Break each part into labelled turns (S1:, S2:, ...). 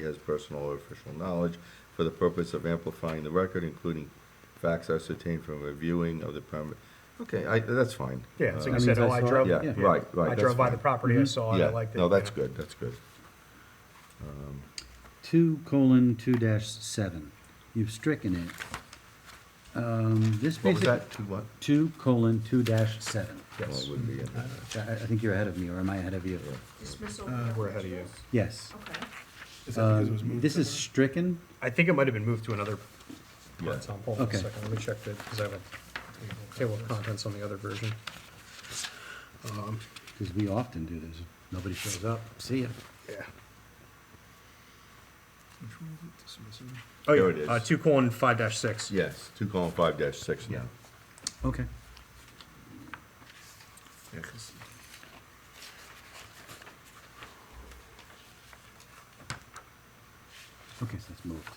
S1: He has personal or official knowledge for the purpose of amplifying the record, including facts ascertained from reviewing of the permit. Okay, I, that's fine.
S2: Yeah, so
S1: Uh,
S2: you
S3: That
S2: said,
S3: means
S2: oh,
S3: I
S2: I
S3: saw it.
S2: drove,
S1: Yeah, right, right.
S2: I drove by the property, I
S1: Oh,
S2: saw it, I liked it.
S1: No, that's
S2: yeah.
S1: good, that's good.
S3: Two colon two dash seven. You've stricken it. Um, this
S1: What was
S3: basically.
S1: that, two what?
S3: Two colon two dash seven.
S1: Well, it
S2: Yes,
S1: wouldn't be in there.
S3: I, I think you're ahead of me, or am I ahead of you?
S4: Dismissal.
S2: Uh, we're ahead of you.
S3: Yes.
S4: Okay.
S5: Is that because it was
S3: Um,
S5: moved
S3: This is
S5: somewhere?
S3: stricken.
S2: I think it might have been moved to another part,
S1: Yeah.
S2: Tom, hold on a
S3: Okay.
S2: second, let me check that, because I have a table of contents on the other version.
S3: Because we often do this. Nobody shows up. See ya.
S2: Yeah.
S5: Which one is it? Dismissive?
S2: Oh,
S1: There it is.
S2: yeah, uh, two colon five dash six.
S1: Yes, two colon five dash six now.
S3: Okay.
S5: Yeah, 'cause-
S3: Okay, so that's moved.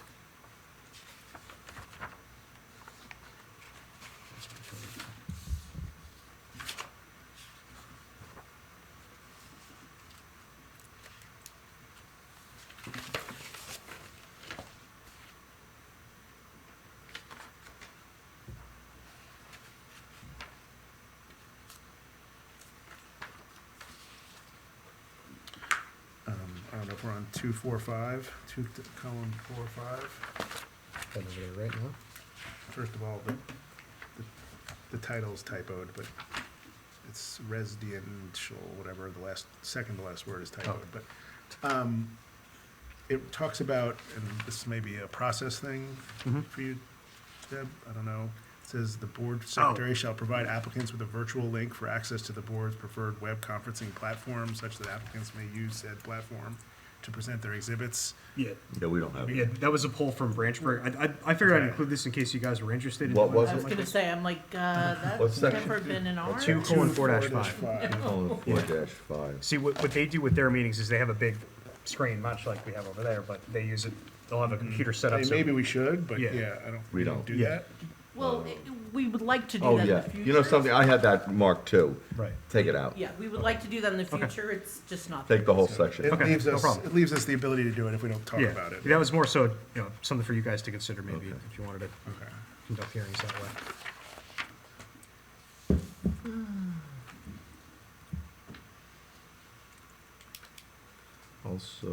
S5: um, I don't know if we're on two, four, five, two, th- column, four, five.
S2: Hold over there right now.
S5: First of all, the, the- the title's typoed, but it's residential, whatever, the last, second to last word is typoed, but, um, it talks about, and this may be a process thing
S2: Mhm.
S5: for you, Deb, I don't know. It Says the board secretary shall provide applicants with a virtual link for access to the board's preferred web conferencing platform such that applicants may use said platform to present their exhibits.
S2: Yeah,
S1: Yeah, we don't have
S2: yeah,
S1: it.
S2: that was a poll from Branchburg, I, I, I figured I'd
S5: Okay.
S2: include this in case you guys were interested. in
S1: What
S2: doing
S1: was
S4: I
S1: it?
S4: was
S2: something like
S4: gonna
S2: this.
S4: say, I'm like, uh,
S1: What's
S4: that's
S1: that?
S4: never been an ours.
S2: Two colon four dash
S5: Four dash
S2: five.
S5: five.
S1: Colon four dash five.
S2: See, what, what they do with their meetings is they have a big screen, much like we have over there, but they use it, they'll have a computer set
S5: I
S2: up.
S5: mean,
S2: so-
S5: Maybe we should, but
S2: Yeah.
S5: yeah, I don't,
S1: We
S5: we
S1: don't.
S5: don't do
S2: Yeah.
S5: that.
S4: Well, it- we would like to do
S1: Oh,
S4: that in the
S1: yeah.
S4: future.
S1: You know something, I had that marked too.
S2: Right.
S1: Take it out.
S4: Yeah, we would like to do that in the future, it's just not.
S1: Take the whole
S5: It
S1: section.
S2: Okay,
S5: leaves
S2: no
S5: us,
S2: problem.
S5: it leaves us the ability to do it if we don't talk
S2: Yeah,
S5: about it.
S2: That was more so, you know, something for you guys to consider maybe,
S1: Okay.
S2: if you wanted to
S5: Okay.
S2: conduct hearings that way.
S1: Also,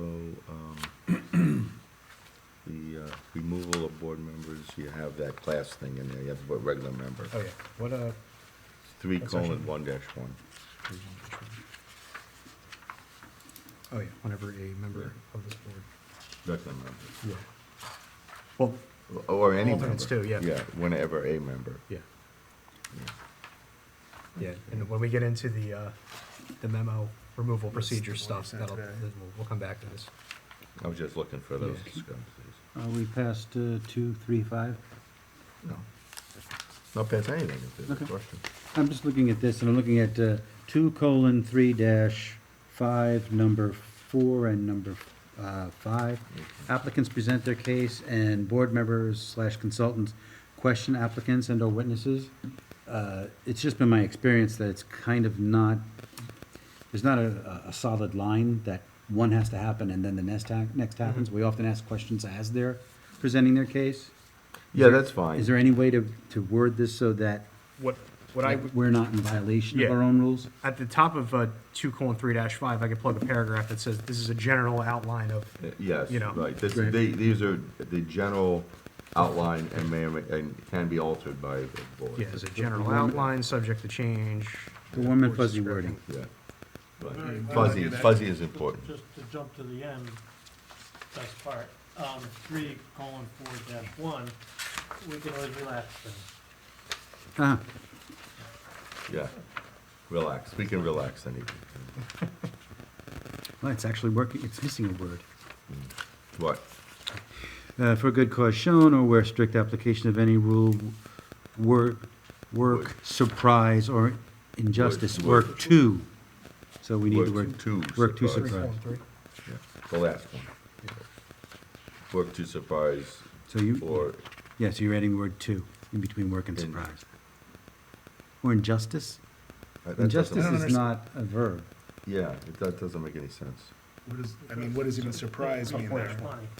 S1: um, the uh, removal of board members, you have that class thing in there, you have to put regular member.
S2: Oh, yeah, what, uh,
S1: Three
S2: That's
S1: colon
S2: actually-
S1: one dash one.
S2: oh, yeah, whenever a member of this board.
S1: Regular member.
S2: Yeah. Well,
S1: Or any member.
S2: Alternates too, yeah.
S1: Yeah, whenever a member.
S2: yeah. Yeah, and when we get into the, uh, the memo removal procedure
S5: the one you
S2: stuff,
S5: sent
S2: that'll,
S5: today.
S2: then we'll, we'll come back to this.
S1: I was just looking for those
S3: Yeah.
S1: discrepancies.
S3: Are we past uh, two, three, five?
S1: No. Not past anything, if there's a
S3: Okay.
S1: question.
S3: I'm just looking at this, and I'm looking at uh, two colon three dash five, number four and number uh, five. Applicants present their case, and board members slash consultants question applicants and/or witnesses. Uh, It's just been my experience that it's kind of not, there's not a, a- a solid line that one has to happen and then the next, ha- next
S2: Mm-hmm.
S3: happens. We often ask questions as they're presenting their case.
S1: Yeah, that's fine.
S3: Is there any way to, to word this so that
S2: What, what I,
S3: we're not in violation of
S2: Yeah.
S3: our own rules?
S2: at the top of, uh, two colon three dash five, I could plug a paragraph that says, this is a general outline of,
S1: Uh, Yes,
S2: you know.
S1: right. This,
S3: Right.
S1: they, these are the general outline and may, or may- and can be altered by the board.
S2: yeah, as a general outline, subject to change.
S3: The warm and fuzzy wording.
S1: Yeah. Right.
S6: Very much.
S1: Fuzzy,
S5: Yeah.
S1: fuzzy is important.
S6: Just to jump to the end, best part, um, three colon four dash one, we can always relax things.
S3: Ah,
S1: Yeah. Relax. We can relax anything.
S3: well, it's actually working, it's missing a word.
S1: What?
S3: Uh, for good cause shown, or where strict application of any rule, work, work, surprise, or injustice,
S1: Work-
S3: work to. So we need the
S1: Work
S3: word.
S1: to
S3: Work to
S1: surprise.
S3: surprise.
S1: Yeah, The last one. Work to surprise
S3: So you,
S1: or
S3: yeah, so you're adding the word to in between work and
S1: In-
S3: surprise. Or injustice?
S1: Uh, that doesn't-
S3: Injustice
S5: I don't
S3: is not a verb.
S1: Yeah, it- that doesn't make any sense.
S5: What is, I mean, what does even surprise me in
S6: Page
S5: that?
S6: twenty.